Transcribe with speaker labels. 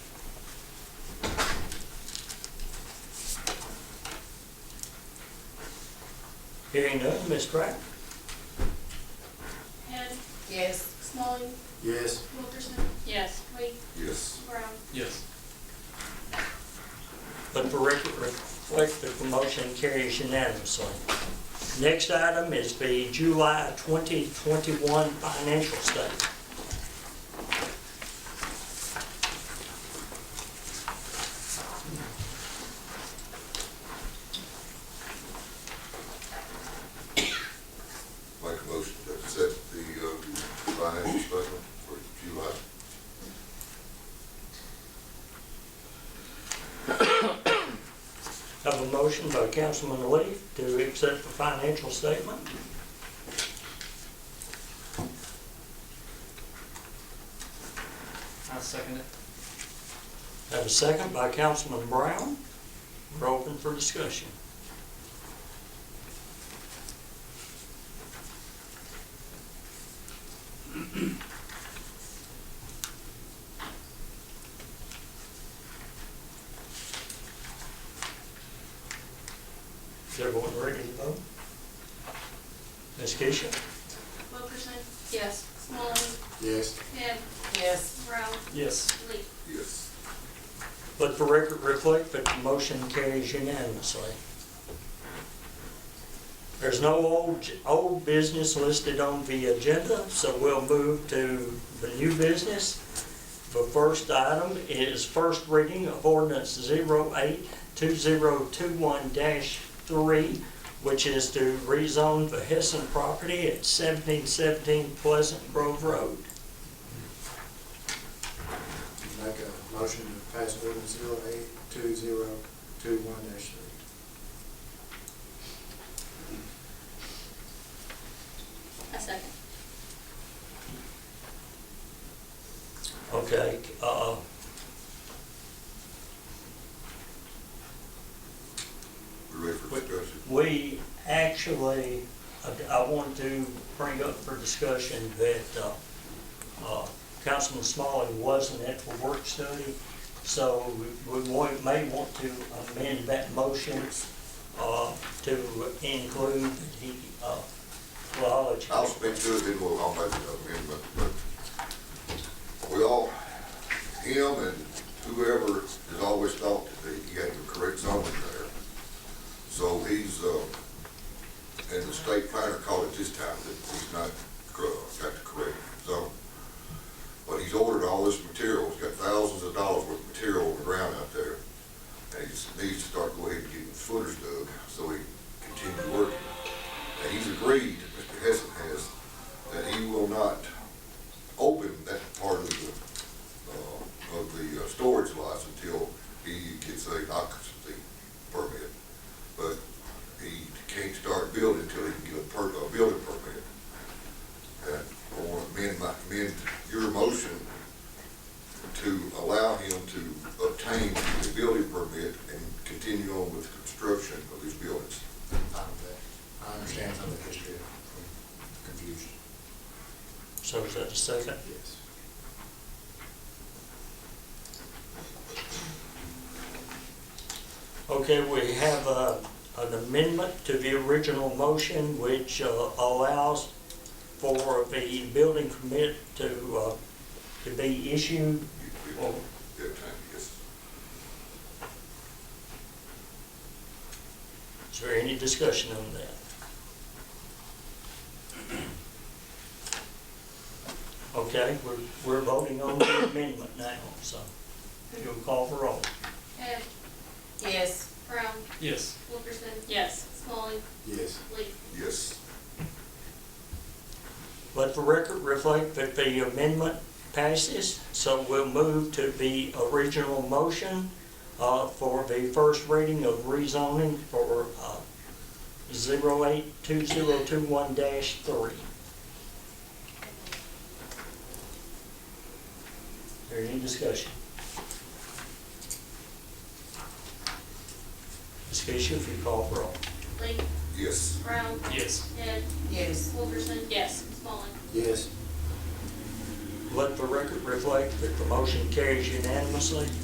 Speaker 1: Hearing none, Ms. Pratt?
Speaker 2: Head,
Speaker 3: Yes.
Speaker 2: Smalling,
Speaker 4: Yes.
Speaker 2: Wilkerson,
Speaker 3: Yes.
Speaker 2: Wade,
Speaker 4: Yes.
Speaker 2: Brown.
Speaker 5: Yes.
Speaker 1: Let the record reflect that the motion carries unanimously. Next item is the July 2021 financial statement.
Speaker 4: Make a motion to accept the, uh, financial statement for July.
Speaker 1: Have a motion by Councilman Lee to accept the financial statement.
Speaker 5: I second it.
Speaker 1: Have a second by Councilman Brown. We're open for discussion. Is everyone ready to vote? Ms. Keisha?
Speaker 2: Wilkerson,
Speaker 3: Yes.
Speaker 2: Smalling,
Speaker 4: Yes.
Speaker 2: Head,
Speaker 3: Yes.
Speaker 2: Brown,
Speaker 5: Yes.
Speaker 2: Lee.
Speaker 4: Yes.
Speaker 1: Let the record reflect that the motion carries unanimously. There's no old, old business listed on the agenda, so we'll move to the new business. The first item is first reading of ordinance 082021-3, which is to rezone the Hessen property at 1717 Pleasant Grove Road.
Speaker 6: Make a motion to pass ordinance zero eight two zero two one dash three.
Speaker 3: I second.
Speaker 1: Okay, uh,
Speaker 4: We ready for discussion?
Speaker 1: We actually, I- I want to bring up for discussion that uh, uh, Councilman Smalley wasn't at the work study, so we- we wa- may want to amend that motion uh, to include that he, uh, well, I'll
Speaker 4: I'll
Speaker 1: let you-
Speaker 4: speak to it, then we'll, I'll make an amendment, but we all, him and whoever has always thought that he had the correct zoning there. So he's, uh, and the state planner called it this time, that he's not, cor- got the correct zone. But he's ordered all this material, he's got thousands of dollars worth of material on the ground out there. And he needs to start going ahead and getting footers dug, so he can continue working. And he's agreed, Mr. Hessen has, that he will not open that part of the, uh, of the uh, storage lots until he gets a occupancy permit. But he can't start building until he can get a per, a building permit. uh, And I want to amend my, amend your motion to allow him to obtain the building permit and continue on with construction of these buildings.
Speaker 6: I I understand some of the history of confusion.
Speaker 1: So is that a second?
Speaker 6: Yes.
Speaker 1: Okay, we have uh, an amendment to the original motion which uh, allows for the building permit to, uh, to be issued.
Speaker 4: Well, yeah, time, yes.
Speaker 1: Is there any discussion on that? Okay, we're, we're voting on the amendment now, so you'll call for roll.
Speaker 2: Head,
Speaker 3: Yes.
Speaker 2: Brown,
Speaker 5: Yes.
Speaker 2: Wilkerson,
Speaker 3: Yes.
Speaker 2: Smalling,
Speaker 6: Yes.
Speaker 2: Lee.
Speaker 4: Yes,
Speaker 1: Let the record reflect that the amendment passes, so we'll move to the original motion uh, for the first reading of rezoning for uh, 082021-3. There any discussion? Ms. Keisha, if you call for all.
Speaker 2: Lee,
Speaker 4: yes.
Speaker 2: Brown,
Speaker 5: Yes.
Speaker 2: Head,
Speaker 3: Yes.
Speaker 2: Wilkerson.
Speaker 3: Yes.
Speaker 2: Smalling,
Speaker 6: Yes.
Speaker 1: Let the record reflect that the motion carries unanimously.